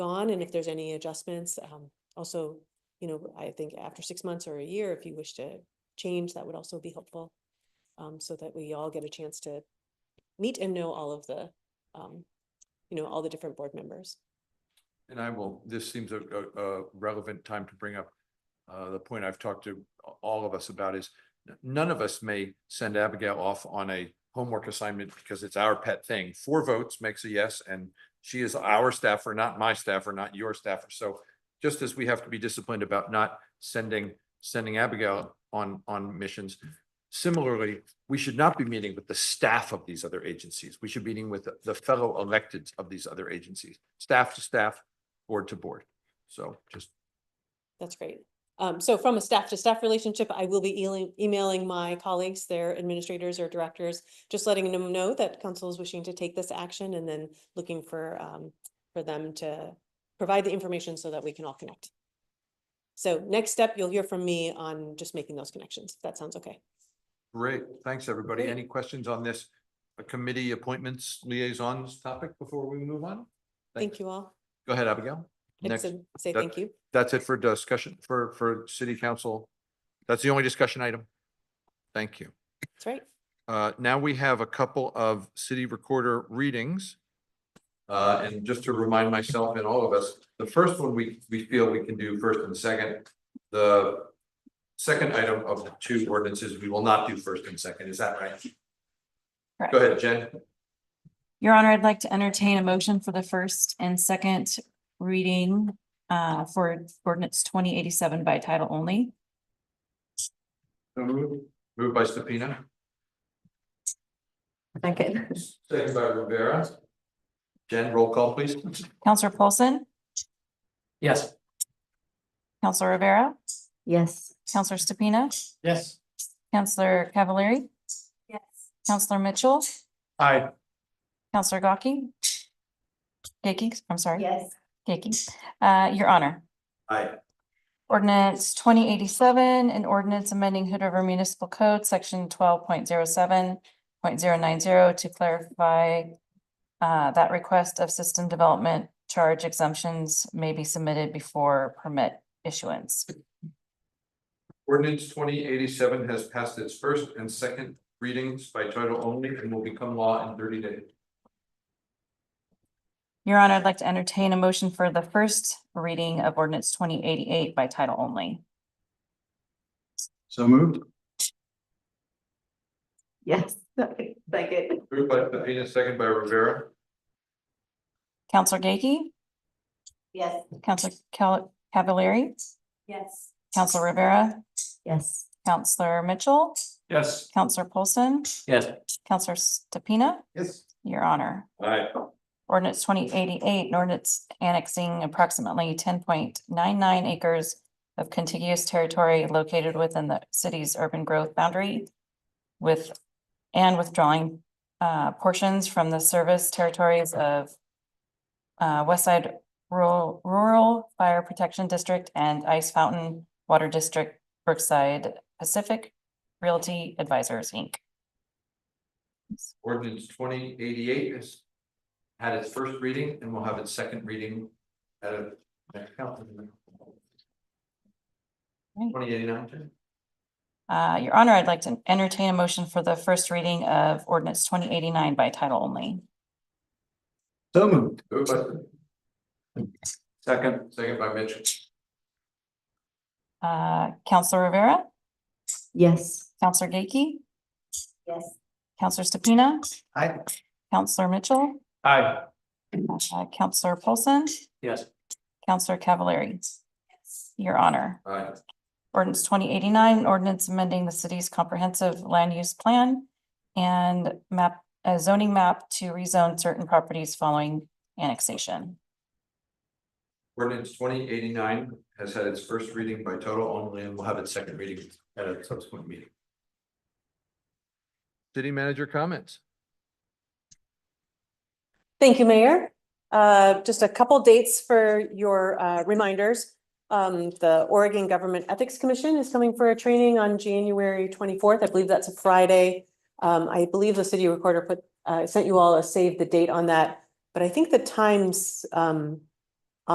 on and if there's any adjustments. Um, also, you know, I think after six months or a year, if you wish to change, that would also be helpful. Um, so that we all get a chance to meet and know all of the, um, you know, all the different board members. And I will, this seems a, a, a relevant time to bring up, uh, the point I've talked to a- all of us about is n- none of us may send Abigail off on a homework assignment because it's our pet thing. Four votes makes a yes, and she is our staffer, not my staffer, not your staffer. So just as we have to be disciplined about not sending, sending Abigail on, on missions, similarly, we should not be meeting with the staff of these other agencies. We should be meeting with the- the fellow electeds of these other agencies, staff to staff, board to board. So just, That's great. Um, so from a staff to staff relationship, I will be eling- emailing my colleagues, their administrators or directors, just letting them know that council is wishing to take this action and then looking for, um, for them to provide the information so that we can all connect. So next step, you'll hear from me on just making those connections. if That sounds okay. great. Thanks, everybody. Okay. Any questions on this uh, committee appointments liaisons topic before we move on? Thank you all. Go ahead, Abigail. I just Next, said- Say that- thank you. that's it for discussion, for, for city council. That's the only discussion item. Thank you. That's right. Uh, Now we have a couple of city recorder readings. Uh, And just to remind myself and all of us, the first one we, we feel we can do first and second. The second item of the two ordinances, we will not do first and second. Is that right? Go ahead, Jen. Your Honor, I'd like to entertain a motion for the first and second reading uh, for ordinance twenty eighty-seven by title only. Moved by Stepina, Second. second by Rivera. Jen, roll call, please. Counselor Paulson, Yes. Counselor Rivera, Yes. Counselor Stupina, Yes. Counselor Cavallari, Yes. Counselor Mitchell, Aye. Counselor Gocke. Gaki, I'm sorry. Yes. Gaki. Uh, Your Honor, Aye. ordinance twenty eighty-seven, an ordinance amending Hood River Municipal Code, section twelve point zero seven point zero nine zero to clarify uh, that request of system development charge exemptions may be submitted before permit issuance. Ordinance twenty eighty-seven has passed its first and second readings by title only and will become law in thirty days. Your Honor, I'd like to entertain a motion for the first reading of ordinance twenty eighty-eight by title only. So moved? Yes. Second. Moved by Pepino, second by Rivera. Counselor Gaki, Yes. Counselor Cal- Cavallari, Yes. Counselor Rivera, Yes. Counselor Mitchell, Yes. Counselor Polson, Yes. Counselor Stepina, Yes. Your Honor. Aye. Ordinance twenty eighty-eight, an ordinance annexing approximately ten point nine nine acres of contiguous territory located within the city's urban growth boundary with, and withdrawing uh, portions from the service territories of uh, West Side Rural, Rural Fire Protection District and Ice Fountain Water District, Brookside Pacific Realty Advisors, Inc. Ordinance twenty eighty-eight has had its first reading and will have its second reading at a next council. Twenty eighty-nine. Uh, Your Honor, I'd like to entertain a motion for the first reading of ordinance twenty eighty-nine by title only. So moved? Moved by- Second, second by Mitchell. Uh, Counselor Rivera, Yes. Counselor Gaki, Yes. Counselor Stupina, Aye. Counselor Mitchell, Aye. uh, Counselor Paulson, Yes. Counselor Cavallari. Your Honor, Aye. ordinance twenty eighty-nine, an ordinance amending the city's comprehensive land use plan and map, a zoning map to rezone certain properties following annexation. Ordinance twenty eighty-nine has had its first reading by title only and will have its second reading at a subsequent meeting. City manager comments? Thank you, Mayor. Uh, Just a couple dates for your uh, reminders. Um, The Oregon Government Ethics Commission is coming for a training on January twenty-fourth. I believe that's a Friday. Um, I believe the city recorder put, uh, sent you all a save the date on that, but I think the times um,